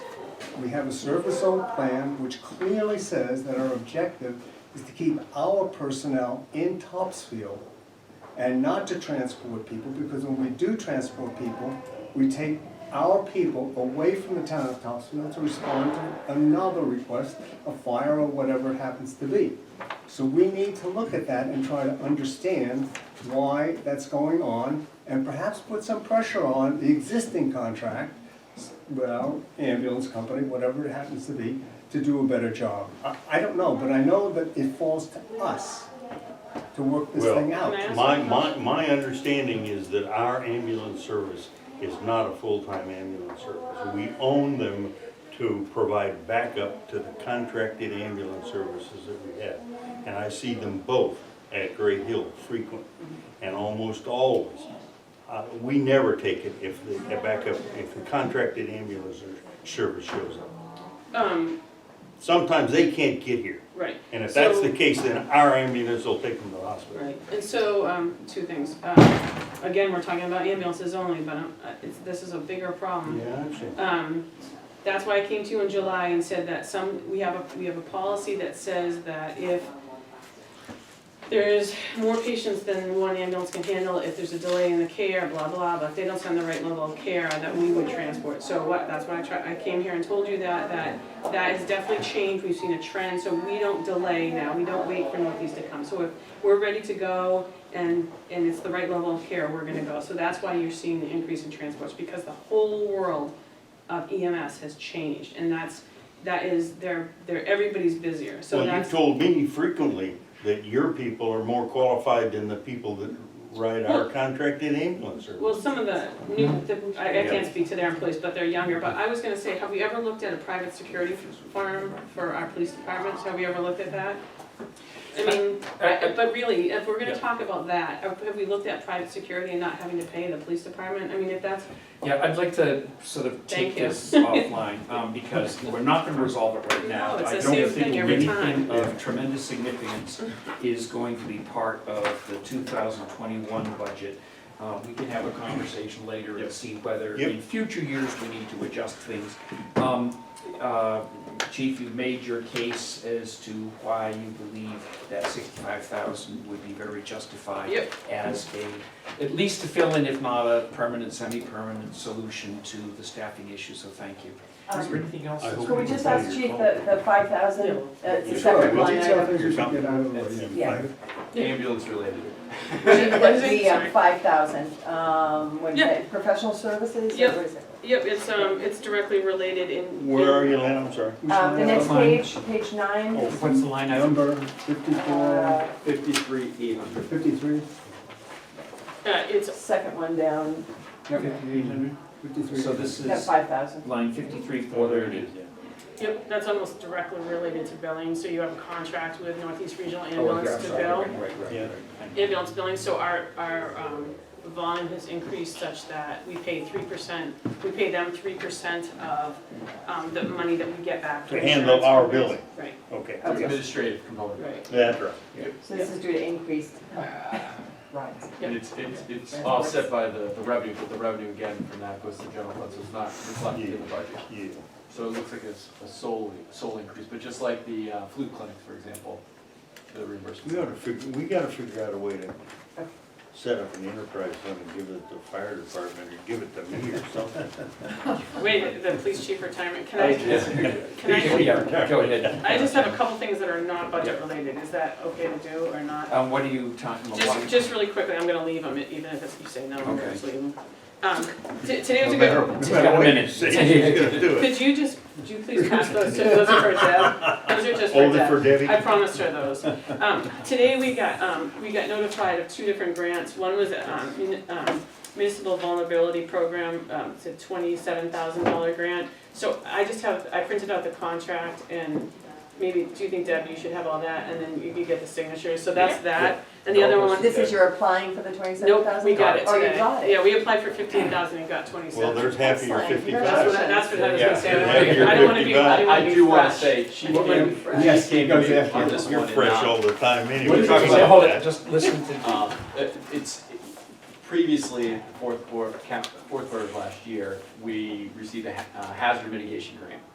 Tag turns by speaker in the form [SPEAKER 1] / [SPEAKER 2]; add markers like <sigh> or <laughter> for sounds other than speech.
[SPEAKER 1] We have a service zone plan which clearly says that our objective is to keep our personnel in Topsfield and not to transport people, because when we do transport people, we take our people away from the town of Topsfield to respond to another request, a fire or whatever it happens to be. So we need to look at that and try to understand why that's going on, and perhaps put some pressure on the existing contract, well, ambulance company, whatever it happens to be, to do a better job. I, I don't know, but I know that it falls to us to work this
[SPEAKER 2] Well,
[SPEAKER 1] thing out.
[SPEAKER 3] Can I ask
[SPEAKER 2] My,
[SPEAKER 3] you a
[SPEAKER 2] my,
[SPEAKER 3] question?
[SPEAKER 2] my understanding is that our ambulance service is not a full-time ambulance service. We own them to provide backup to the contracted ambulance services that we have. And I see them both at Gray Hill frequently, and almost always. Uh, we never take it if the a backup, if the contracted ambulance or- service shows up.
[SPEAKER 3] Um,
[SPEAKER 2] Sometimes they can't get here,
[SPEAKER 3] right.
[SPEAKER 2] and if that's
[SPEAKER 3] So-
[SPEAKER 2] the case, then our ambulance will take them to the hospital.
[SPEAKER 3] Right, and so, um, two things. Um, again, we're talking about ambulances only, but um, uh, it's, this is a bigger problem.
[SPEAKER 2] Yeah, I understand.
[SPEAKER 3] Um, that's why I came to you in July and said that some, we have a, we have a policy that says that if there's more patients than one ambulance can handle, if there's a delay in the care, blah, blah, but if they don't send the right level of care, that we would transport. So what, that's why I tried, I came here and told you that, that, that has definitely changed, we've seen a trend, so we don't delay now, we don't wait for Northeast to come. So if we're ready to go and, and it's the right level of care, we're gonna go. So that's why you're seeing the increase in transports, because the whole world of EMS has changed, and that's, that is, they're, they're, everybody's busier, so
[SPEAKER 2] Well, you
[SPEAKER 3] that's.
[SPEAKER 2] told me frequently that your people are more qualified than the people that ride our contracted ambulance service.
[SPEAKER 3] Well, some of the new, the, I, I
[SPEAKER 2] Yeah.
[SPEAKER 3] can't speak to their employees, but they're younger, but I was gonna say, have we ever looked at a private security firm for our police departments, have we ever looked at that? I mean, I- but really, if we're gonna talk about that, uh, have have we looked at private security and not having to pay the police department, I mean, if that's,
[SPEAKER 4] Yeah, I'd like to sort of
[SPEAKER 3] Thank
[SPEAKER 4] take
[SPEAKER 3] you. <laughs>
[SPEAKER 4] this offline, um, because we're not gonna resolve it right now.
[SPEAKER 3] No, it's
[SPEAKER 4] I
[SPEAKER 3] the
[SPEAKER 4] don't
[SPEAKER 3] same
[SPEAKER 4] think
[SPEAKER 3] thing every
[SPEAKER 4] anything
[SPEAKER 3] time.
[SPEAKER 4] of tremendous significance is going to be part of the two thousand twenty-one budget. Uh, we can have a conversation later and see whether
[SPEAKER 2] Yep.
[SPEAKER 4] in future years we need to adjust things. Um, uh, Chief, you've made your case as to why you believe that sixty-five thousand would be very justified
[SPEAKER 3] Yep.
[SPEAKER 4] as a, at least to fill in, if not a permanent, semi-permanent solution to the staffing issue, so thank you. Is there
[SPEAKER 5] Um,
[SPEAKER 4] anything else?
[SPEAKER 2] I hope
[SPEAKER 5] Could we just ask Chief the, the five thousand, it's
[SPEAKER 2] Yeah.
[SPEAKER 5] a
[SPEAKER 1] Sure,
[SPEAKER 5] separate
[SPEAKER 1] the
[SPEAKER 5] line
[SPEAKER 1] detail
[SPEAKER 5] item.
[SPEAKER 1] things we should
[SPEAKER 2] Something.
[SPEAKER 1] get out of the way.
[SPEAKER 2] That's-
[SPEAKER 1] yeah.
[SPEAKER 4] Ambulance related.
[SPEAKER 5] The,
[SPEAKER 3] Sorry.
[SPEAKER 5] the um, five thousand, um, what is
[SPEAKER 3] Yeah.
[SPEAKER 5] it, professional services, or
[SPEAKER 3] Yep.
[SPEAKER 5] what is it?
[SPEAKER 3] yep, it's, um, it's directly related in.
[SPEAKER 2] Where are you, Lynn? I'm sorry.
[SPEAKER 1] We
[SPEAKER 5] Uh, the
[SPEAKER 1] should
[SPEAKER 5] next
[SPEAKER 1] have
[SPEAKER 4] Fine.
[SPEAKER 5] page, page nine,
[SPEAKER 4] Oh, what's the line item?
[SPEAKER 1] Number fifty-four,
[SPEAKER 5] uh,
[SPEAKER 6] Fifty-three, eight hundred.
[SPEAKER 1] fifty-three?
[SPEAKER 3] Uh, it's,
[SPEAKER 5] second one down,
[SPEAKER 4] Fifty-eight hundred.
[SPEAKER 1] Fifty-three.
[SPEAKER 4] So this
[SPEAKER 5] that
[SPEAKER 4] is
[SPEAKER 5] five thousand.
[SPEAKER 4] line fifty-three, four thirty.
[SPEAKER 3] yep, that's almost directly related to billing, so you have a contract with Northeast Regional
[SPEAKER 4] Oh, okay, I'm
[SPEAKER 3] Ambulance to bill.
[SPEAKER 4] sorry, right, right, right,
[SPEAKER 2] Yeah.
[SPEAKER 4] right. Thank you.
[SPEAKER 3] ambulance billing, so our, our um, volume has increased such that we pay three percent, we pay them three percent of um, the money that we get back.
[SPEAKER 2] To
[SPEAKER 3] from
[SPEAKER 2] handle
[SPEAKER 3] insurance
[SPEAKER 2] our
[SPEAKER 3] companies.
[SPEAKER 2] billing.
[SPEAKER 3] Right,
[SPEAKER 2] Okay,
[SPEAKER 6] Administrative component.
[SPEAKER 3] right.
[SPEAKER 2] that's right.
[SPEAKER 5] So this is due to increased rides.
[SPEAKER 6] And it's, it's, it's offset by the, the revenue, but the revenue again from that goes to general fund, so it's not reflected in the budget.
[SPEAKER 2] Yeah.
[SPEAKER 6] So it looks like it's a solely, sole increase, but just like the uh, flu clinics, for example, the
[SPEAKER 2] We
[SPEAKER 6] reimbursement.
[SPEAKER 2] ought to figure, we gotta figure out a way to set up an enterprise fund and give it to the fire department or give it to me or something.
[SPEAKER 3] Wait, the police chief retirement, can I, can I,
[SPEAKER 4] Yeah, go ahead.
[SPEAKER 3] I just have a couple things that are not budget related, is that okay to do or not?
[SPEAKER 4] Um, what are you talking
[SPEAKER 3] Just,
[SPEAKER 4] about?
[SPEAKER 3] just really quickly, I'm gonna leave them, even if it's- you say no, I'm gonna
[SPEAKER 4] Okay.
[SPEAKER 3] just leave them. Um, t- Today was a
[SPEAKER 2] No
[SPEAKER 3] good,
[SPEAKER 2] matter- no
[SPEAKER 4] It's
[SPEAKER 2] matter
[SPEAKER 4] got a
[SPEAKER 2] what you <laughs>
[SPEAKER 4] minute.
[SPEAKER 2] say, She's gonna do it.
[SPEAKER 3] could you just, could you please pass those to, those are for Deb, those are just for
[SPEAKER 2] Hold it
[SPEAKER 3] Deb.
[SPEAKER 2] for Debbie.
[SPEAKER 3] I promised her those. Um, today we got, um, we got notified of two different grants. One was, um, mun- um, municipal vulnerability program, um, it's a twenty-seven thousand dollar grant. So I just have, I printed out the contract and maybe, do you think Deb, you should have all that and then you could get the signatures, so that's that. And the other one,
[SPEAKER 5] This is your applying for the twenty-seven
[SPEAKER 3] nope,
[SPEAKER 5] thousand?
[SPEAKER 3] we got it
[SPEAKER 5] Oh,
[SPEAKER 3] today.
[SPEAKER 5] you got it.
[SPEAKER 3] Yeah, we applied for fifteen thousand and got twenty-seven.
[SPEAKER 2] Well, there's half of your
[SPEAKER 5] Excellent.
[SPEAKER 3] That's what, I-
[SPEAKER 2] fifty-five.
[SPEAKER 3] that's what I was
[SPEAKER 6] Yeah.
[SPEAKER 3] gonna say, I don't wanna- I don't wanna be, I don't wanna
[SPEAKER 6] I
[SPEAKER 3] be
[SPEAKER 6] do want to
[SPEAKER 3] fresh.
[SPEAKER 6] say, she
[SPEAKER 3] Well,
[SPEAKER 6] came,
[SPEAKER 3] then-
[SPEAKER 6] she
[SPEAKER 1] Yes,
[SPEAKER 6] came
[SPEAKER 1] because
[SPEAKER 6] to me
[SPEAKER 1] after-
[SPEAKER 6] on this one
[SPEAKER 2] You're
[SPEAKER 6] and
[SPEAKER 2] fresh
[SPEAKER 6] not-
[SPEAKER 2] all the time anyway.
[SPEAKER 4] What are you talking
[SPEAKER 2] Sorry
[SPEAKER 4] about? Hold it,
[SPEAKER 2] that.
[SPEAKER 4] just listen to.
[SPEAKER 6] Um, it- It's, previously, the fourth quarter, fourth quarter of last year, we received a ha- uh, hazard mitigation grant.